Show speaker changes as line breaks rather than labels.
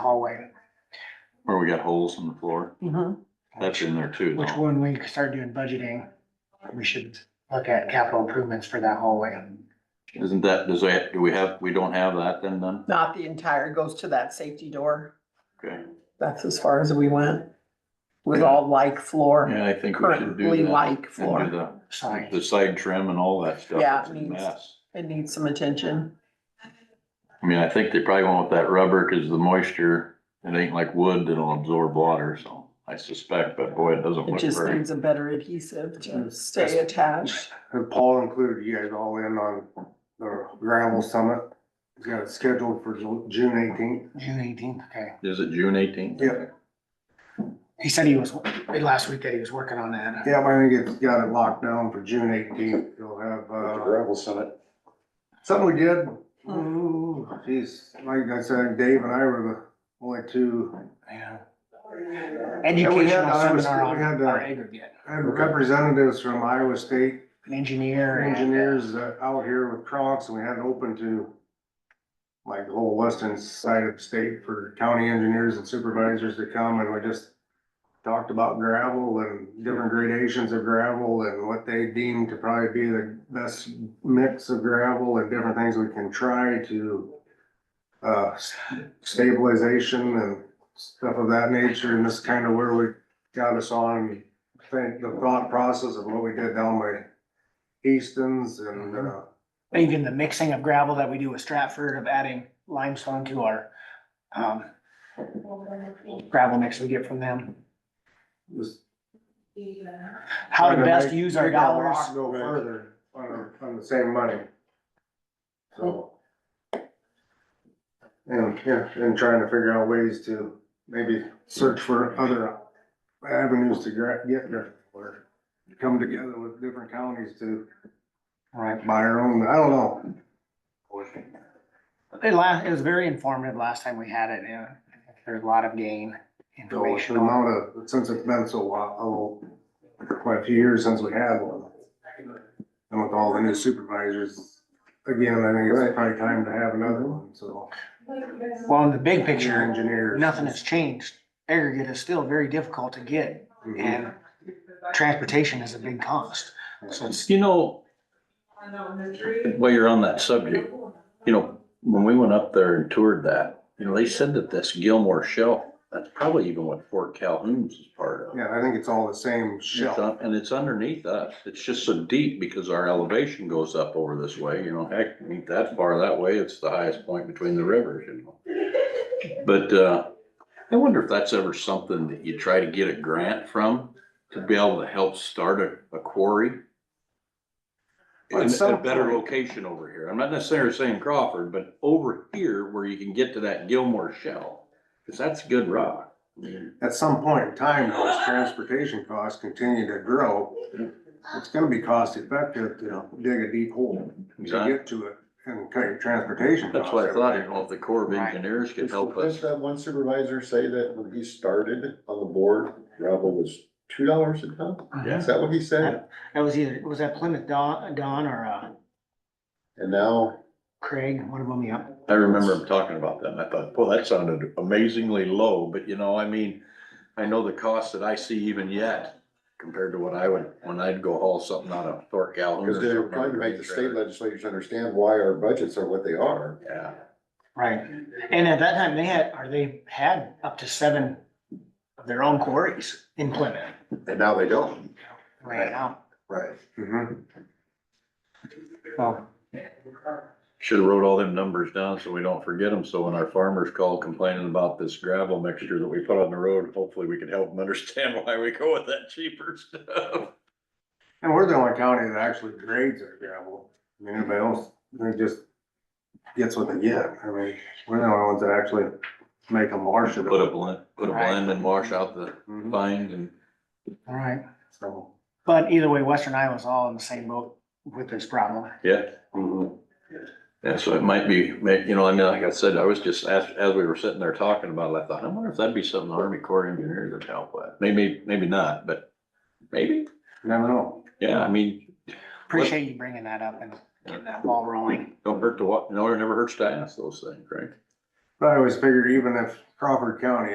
hallway,
Where we got holes in the floor, that's in there too.
which
though.
when we start doing budgeting, we should look at capital improvements for that hallway.
Isn't that, does that, do we have, we don't have that then done?
Not the entire, goes to that safety door.
Okay,
That's as far as we went. With all like floor,
yeah, I think we should do
currently
that.
like
And
floor.
do the,
Sorry,
the side trim and all that stuff.
Yeah,
It's a
it needs-
mess.
It needs some attention.
I mean, I think they probably went with that rubber because the moisture, it ain't like wood that'll absorb water, so I suspect, but boy, it doesn't
It
look
just
very.
needs a better adhesive to
Mm.
stay attached.
And Paul included you guys all in on the gravel summit. He's got it scheduled for Ju- June eighteenth.
June eighteenth, okay.
Is it June eighteenth?
Yeah.
He said he was, last week that he was working on that.
Yeah, I think it's got it locked down for June eighteenth. You'll have, uh,
summit.
something we did. Ooh, geez, like I said, Dave and I were the only two
Yeah.
we had
Educational
the
seminar
Iowa State- we had uh,
on
the-
our aggregate,
I had representatives from Iowa State
an engineer. and-
engineers uh, out here with Crocs and we had it open to like the whole western side of the state for county engineers and supervisors to come and we just talked about gravel and different gradations of gravel and what they deem to probably be the best mix of gravel and different things we can try to uh, s- stabilization and stuff of that nature. And this is kind of where we got us on, I think, the thought process of what we did down by Easton's and, uh,
Even the mixing of gravel that we do with Stratford of adding limestone to our, um, gravel mix we get from them.
just
How to
Trying to
best
make-
use our
make our
dollars.
rock Go further on, our- on the same money. So. And, yeah, and trying to figure out ways to maybe search for other avenues to gra- get there. Or come together with different counties to
Right.
buy our own, I don't know.
It la, it was very informative last time we had it, and there's a lot of gain
So it's
information.
the amount of, since it's been so while, quite a few years since we had one. And with all the new supervisors, again, I think it's probably time to have another one, so.
Well, in the big
Your
picture,
engineers.
nothing has changed. Aggregate is still very difficult to get
Mhm.
and transportation is a big cost. So it's,
You know, while you're on that subject, you know, when we went up there and toured that, you know, they said that this Gilmore shelf, that's probably even what Fort Calhoun's is part of.
Yeah, I think it's all the same
It's
shell.
un- And it's underneath us. It's just so deep because our elevation goes up over this way, you know, heck, it ain't that far that way. It's the highest point between the rivers, you know. But, uh, I wonder if that's ever something that you try to get a grant from to be able to help start a, a quarry?
At
In a
some
better
point.
location over here. I'm not necessarily saying Crawford, but over here where you can get to that Gilmore shell. Cause that's good rock. I mean,
At some point in time, though, as transportation costs continue to grow, it's gonna be cost effective to dig a deep hole to
Exactly.
get to it and cut your transportation costs.
That's what I thought, you know, if the Corps of Engineers could help us.
Does that one supervisor say that when he started on the board, gravel was two dollars a ton?
Yeah.
Is that what he said?
that was either, was that Plymouth Don, Don or uh,
And now,
Craig, one of them, yeah.
I remember him talking about that, and I thought, well, that sounded amazingly low, but you know, I mean, I know the cost that I see even yet compared to what I would, when I'd go haul something out of Thor Calhoun. or
because they're
something.
trying to make the state legislators understand why our budgets are what they are.
Yeah,
Right. And at that time, they had, or they had up to seven of their own quarries in Plymouth
And now they don't.
right now.
Right.
Mhm.
Well,
should've wrote all them numbers down so we don't forget them, so when our farmers call complaining about this gravel mixture that we put on the road, hopefully we can help them understand why we go with that cheaper stuff.
And we're the only county that actually grades our gravel. I mean, everybody else, they just gets what they get. I mean, we're the only ones that actually make a marsh of
Put a
it.
blend, put a blend and wash out the
Mhm.
bind and.
all right.
So,
But either way, Western Iowa's all in the same boat with this problem.
Yeah.
mm-hmm.
Yeah, so it might be, may- you know, I mean, like I said, I was just, as, as we were sitting there talking about it, I thought, I wonder if that'd be something the Army Corps of Engineers would help with. Maybe, maybe not, but maybe,
never know.
yeah, I mean,
Appreciate you bringing that up and getting that ball rolling.
don't hurt to, wa- no, it never hurts to ask those things, right?
But I always figured even if Crawford County